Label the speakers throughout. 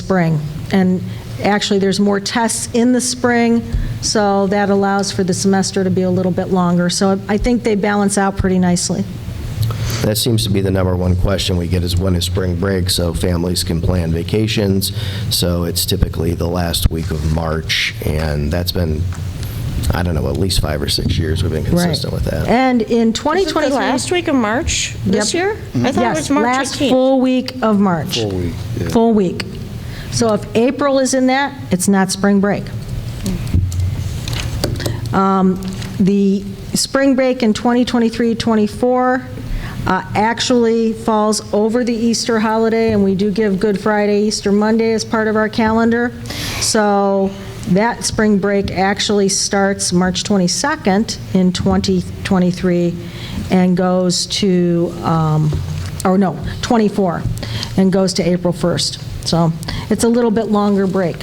Speaker 1: spring. And actually, there's more tests in the spring, so that allows for the semester to be a little bit longer. So I think they balance out pretty nicely.
Speaker 2: That seems to be the number one question we get is when is spring break, so families can plan vacations. So it's typically the last week of March, and that's been, I don't know, at least five or six years we've been consistent with that.
Speaker 1: And in
Speaker 3: Is it the
Speaker 1: 2023...
Speaker 3: last week of March this
Speaker 1: Yep.
Speaker 3: year? I thought it was March
Speaker 1: Yes, last
Speaker 3: 18th.
Speaker 1: full week of March. Full week, Full week. So if April is in that, it's not spring break. Um, The spring break in 2023-24 uh, actually falls over the Easter holiday, and we do give Good Friday, Easter Monday as part of our calendar. So that spring break actually starts March 22nd in 2023 and goes to, um, or no, 24, and goes to April 1st. So it's a little bit longer break.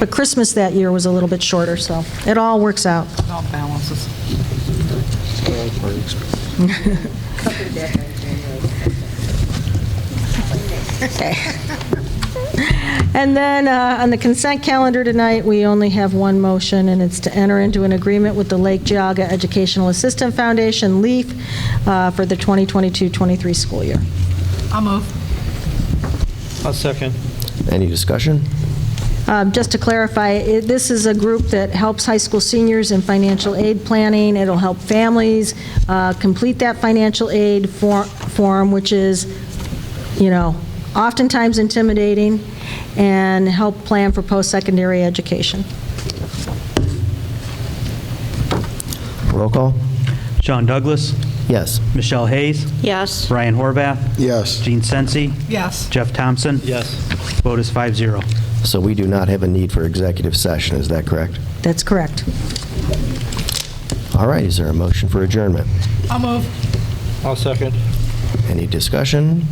Speaker 1: But Christmas that year was a little bit shorter, so it all works out.
Speaker 4: all balances.
Speaker 1: And then, uh, on the consent calendar tonight, we only have one motion, and it's to enter into an agreement with the Lake Geogga Educational Assistant Foundation, LEAF, uh, for the 2022-23 school year.
Speaker 4: I'll move.
Speaker 5: I'll second.
Speaker 2: Any discussion?
Speaker 1: Um, Just to clarify, it- this is a group that helps high school seniors in financial aid planning. It'll help families uh, complete that financial aid for- form, which is, you know, oftentimes intimidating, and help plan for post-secondary education.
Speaker 2: Roll call?
Speaker 6: John Douglas,
Speaker 2: Yes.
Speaker 6: Michelle Hayes,
Speaker 3: Yes.
Speaker 6: Brian Horvath.
Speaker 7: Yes.
Speaker 6: Gene Sensi.
Speaker 4: Yes.
Speaker 6: Jeff Thompson.
Speaker 5: Yes.
Speaker 6: Vote is 5-0.
Speaker 2: So we do not have a need for executive session, is that correct?
Speaker 1: That's correct.
Speaker 2: All right, is there a motion for adjournment?
Speaker 4: I'll move.
Speaker 5: I'll second.
Speaker 2: Any discussion?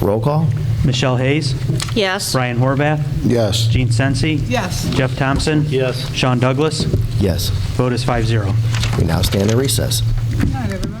Speaker 2: Roll call?
Speaker 6: Michelle Hayes,
Speaker 3: Yes.
Speaker 6: Brian Horvath,
Speaker 7: Yes.
Speaker 6: Gene Sensi.
Speaker 4: Yes.
Speaker 6: Jeff Thompson.
Speaker 5: Yes.
Speaker 6: Sean Douglas.
Speaker 2: Yes.
Speaker 6: Vote is 5-0.
Speaker 2: We now stand in recess.
Speaker 4: Good night, everybody.